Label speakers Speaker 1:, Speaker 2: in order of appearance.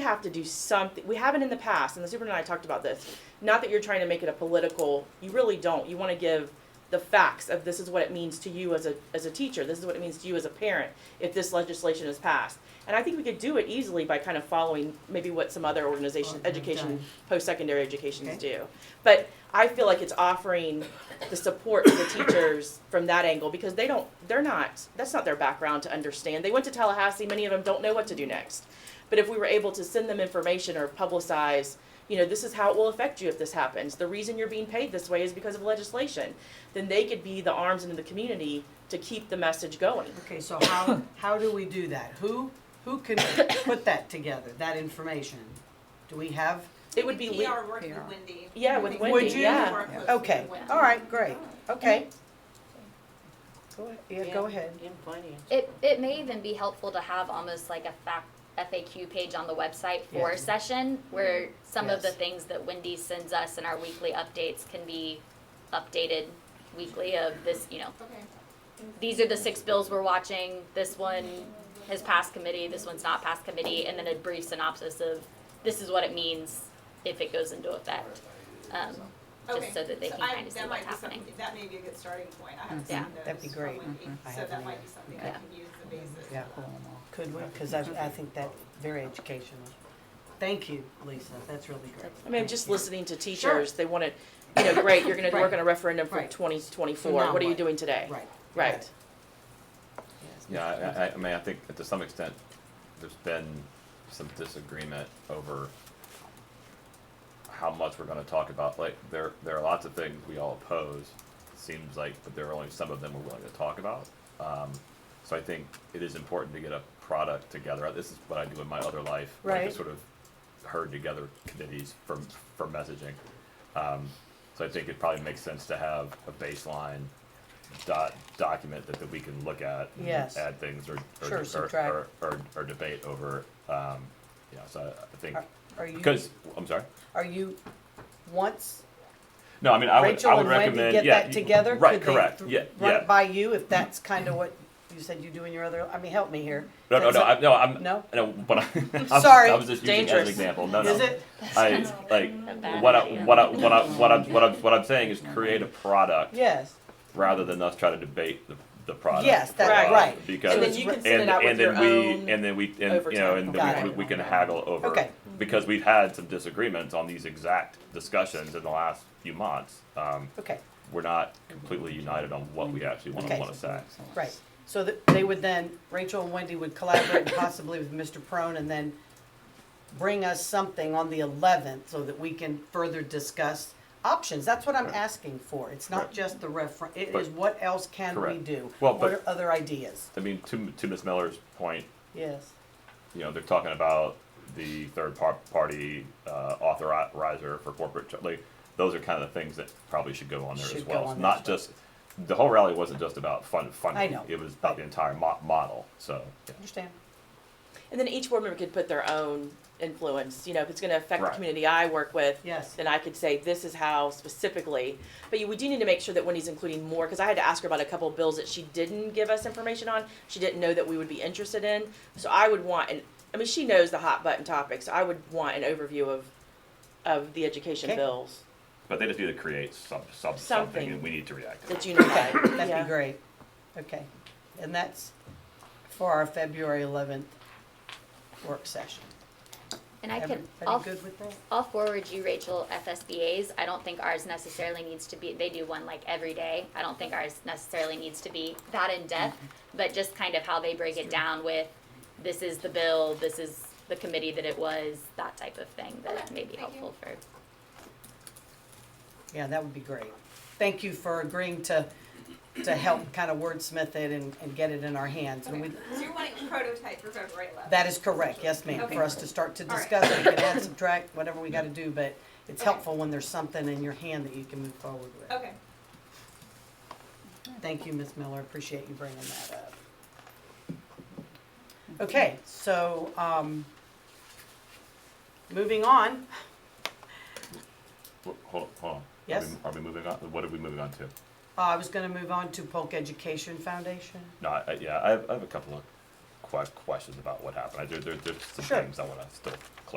Speaker 1: have to do something. We haven't in the past, and the superintendent and I talked about this. Not that you're trying to make it a political, you really don't. You want to give the facts of this is what it means to you as a, as a teacher, this is what it means to you as a parent if this legislation is passed. And I think we could do it easily by kind of following maybe what some other organizations,
Speaker 2: Okay,
Speaker 1: education,
Speaker 2: done.
Speaker 1: post-secondary educations
Speaker 2: Okay.
Speaker 1: do. But I feel like it's offering the support to the teachers from that angle because they don't, they're not, that's not their background to understand. They went to Tallahassee, many of them don't know what to do next. But if we were able to send them information or publicize, you know, this is how it will affect you if this happens. The reason you're being paid this way is because of legislation. Then they could be the arms into the community to keep the message going.
Speaker 2: Okay, so how, how do we do that? Who, who can put that together, that information? Do we have,
Speaker 1: It would be,
Speaker 3: PR
Speaker 1: le-
Speaker 3: work with
Speaker 4: PR.
Speaker 3: Wendy.
Speaker 1: Yeah, with
Speaker 3: Would
Speaker 1: Wendy,
Speaker 3: you
Speaker 1: yeah.
Speaker 3: work with
Speaker 2: okay,
Speaker 3: Wendy?
Speaker 2: all right, great, okay. Go ahead, yeah, go ahead.
Speaker 5: In finance.
Speaker 6: It, it may even be helpful to have almost like a fact FAQ page on the website for
Speaker 2: Yeah.
Speaker 6: a session where some of the
Speaker 2: Yes.
Speaker 6: things that Wendy sends us in our weekly updates can be updated weekly of this, you know,
Speaker 3: Okay.
Speaker 6: these are the six bills we're watching, this one has passed committee, this one's not passed committee, and then a brief synopsis of this is what it means if it goes into effect. Um,
Speaker 3: Okay.
Speaker 6: just so that they can
Speaker 3: I-
Speaker 6: kind of see
Speaker 3: that
Speaker 6: what's
Speaker 3: might be some-
Speaker 6: happening.
Speaker 3: That may be a good starting point. I have
Speaker 6: Mhm. Yeah.
Speaker 3: seen those.
Speaker 2: That'd be great. Mm-hmm.
Speaker 3: from Wendy,
Speaker 2: I
Speaker 3: So
Speaker 2: haven't
Speaker 3: that might
Speaker 2: either.
Speaker 3: be something
Speaker 6: Yeah.
Speaker 3: I can use as a basis.
Speaker 2: Yeah,
Speaker 3: for that.
Speaker 2: could we? Because I, I think that's very educational. Thank you, Lisa, that's really great.
Speaker 1: I mean, just
Speaker 2: Thank you.
Speaker 1: listening to teachers, they wanted, you know, great, you're gonna work on a referendum for
Speaker 2: Right.
Speaker 1: twenty
Speaker 2: So
Speaker 1: twenty-four,
Speaker 2: now
Speaker 1: what are you
Speaker 2: what?
Speaker 1: doing today?
Speaker 2: Right.
Speaker 1: Right.
Speaker 2: Yes.
Speaker 7: Yeah, I- I, I mean, I think to some extent, there's been some disagreement over how much we're gonna talk about, like, there, there are lots of things we all oppose, seems like, but there are only some of them we're willing to talk about. Um, so I think it is important to get a product together, this is what I do in my other life, like,
Speaker 2: Right.
Speaker 7: to sort of herd together committees for, for messaging. Um, so I think it probably makes sense to have a baseline dot, document that, that we can look at. and
Speaker 2: Yes.
Speaker 7: Add things or,
Speaker 2: Sure,
Speaker 7: or, or,
Speaker 2: subtract.
Speaker 7: or, or, or debate over, um, you know, so I- I think,
Speaker 2: Are- Are you,
Speaker 7: because, I'm sorry,
Speaker 2: are you, once
Speaker 7: no, I mean, I would,
Speaker 2: Rachel
Speaker 7: I would
Speaker 2: and Wendy
Speaker 7: recommend, yeah.
Speaker 2: get that
Speaker 7: you-
Speaker 2: together?
Speaker 7: Right,
Speaker 2: could they
Speaker 7: correct,
Speaker 2: th-
Speaker 7: yeah,
Speaker 2: Run it
Speaker 7: yeah.
Speaker 2: by you if that's kind of what you said you do in your other, I mean, help me here.
Speaker 7: No, no,
Speaker 2: That's
Speaker 7: no,
Speaker 2: a-
Speaker 7: I, no, I'm,
Speaker 2: No?
Speaker 7: no, but I, I'm,
Speaker 2: Sorry.
Speaker 7: I was just using it
Speaker 1: Dangerous.
Speaker 7: as an example, no, no.
Speaker 2: Is it?
Speaker 7: I, like,
Speaker 6: A bad
Speaker 7: what I,
Speaker 6: idea.
Speaker 7: what I, what I, what I'm, what I'm, what I'm saying is create a product
Speaker 2: Yes.
Speaker 7: rather than us try to debate the, the product.
Speaker 2: Yes, that's
Speaker 1: Right.
Speaker 2: right.
Speaker 7: Because.
Speaker 1: And then you can send it
Speaker 7: and,
Speaker 1: out with
Speaker 7: and then
Speaker 1: your own.
Speaker 7: we and then we and you know
Speaker 1: overtime.
Speaker 7: and
Speaker 2: Got
Speaker 7: then we,
Speaker 2: it.
Speaker 7: we can haggle over
Speaker 2: Okay.
Speaker 7: because we've had some disagreements on these exact discussions in the last few months. Um,
Speaker 2: Okay,
Speaker 7: we're not completely united on what we actually want to
Speaker 2: Okay.
Speaker 7: want to say.
Speaker 2: right. So that they would then, Rachel and Wendy would collaborate possibly with Mr. Prone and then bring us something on the eleventh so that we can further discuss options. That's what I'm
Speaker 7: Right.
Speaker 2: asking for. It's not
Speaker 7: Right.
Speaker 2: just the refer, it
Speaker 7: But-
Speaker 2: is what else can we
Speaker 7: Correct.
Speaker 2: do?
Speaker 7: Well,
Speaker 2: What
Speaker 7: but-
Speaker 2: are other ideas?
Speaker 7: I mean, to to Ms. Miller's point,
Speaker 2: Yes.
Speaker 7: you know, they're talking about the third par- party uh, authorizer for corporate. Ch- like, those are kind of the things that probably should go on there as
Speaker 2: Should go
Speaker 7: well.
Speaker 2: on
Speaker 7: It's
Speaker 2: there
Speaker 7: not
Speaker 2: as well.
Speaker 7: just the whole rally wasn't just about fund funding.
Speaker 2: I know.
Speaker 7: It was about the entire mo- model. So. yeah.
Speaker 2: Understand?
Speaker 1: And then each board member could put their own influence, you know, if it's gonna affect the
Speaker 7: Right.
Speaker 1: community I work with.
Speaker 2: Yes.
Speaker 1: Then I could say, this is how specifically, but you, we do need to make sure that Wendy's including more, cause I had to ask her about a couple of bills that she didn't give us information on, she didn't know that we would be interested in. So I would want, and, I mean, she knows the hot button topics, I would want an overview of, of the education
Speaker 2: Okay.
Speaker 1: bills
Speaker 7: But they just need to create some, some,
Speaker 1: Something.
Speaker 7: something and we need to react to
Speaker 1: that's
Speaker 7: it.
Speaker 1: unified,
Speaker 2: That'd
Speaker 1: yeah.
Speaker 2: be great. Okay. And that's for our February eleventh work session.
Speaker 6: And I can, I'll
Speaker 2: Everybody good with that?
Speaker 6: I'll forward you Rachel FSBA's. I don't think ours necessarily needs to be, they do one like every day. I don't think ours necessarily needs to be that in depth, but just kind of how they break it down with this is the bill, this is the committee that it was, that type of thing that may be
Speaker 3: Thank you.
Speaker 6: helpful for.
Speaker 2: Yeah, that would be great. Thank you for agreeing to, to help kind of wordsmith it and, and get it in our hands. And we,
Speaker 3: Okay. So you're wanting a prototype for February 11th?
Speaker 2: that is correct, yes ma'am, for us to start to
Speaker 3: All right.
Speaker 2: discuss, we can add, subtract, whatever we gotta do, but it's
Speaker 3: Okay.
Speaker 2: helpful when there's something in your hand that you can move forward with.
Speaker 3: Okay.
Speaker 2: Thank you, Ms. Miller, appreciate you bringing that up. Okay, so, um, moving on,
Speaker 7: Wh- Hold, hold on.
Speaker 2: Yes.
Speaker 7: Are we, are we moving on? What are we moving on to?
Speaker 2: uh, I was gonna move on to Polk Education Foundation.
Speaker 7: No, I, I- yeah, I have, I have a couple of que- questions about what happened. I, there, there, there's some
Speaker 2: Sure.
Speaker 7: things I want to still clarify.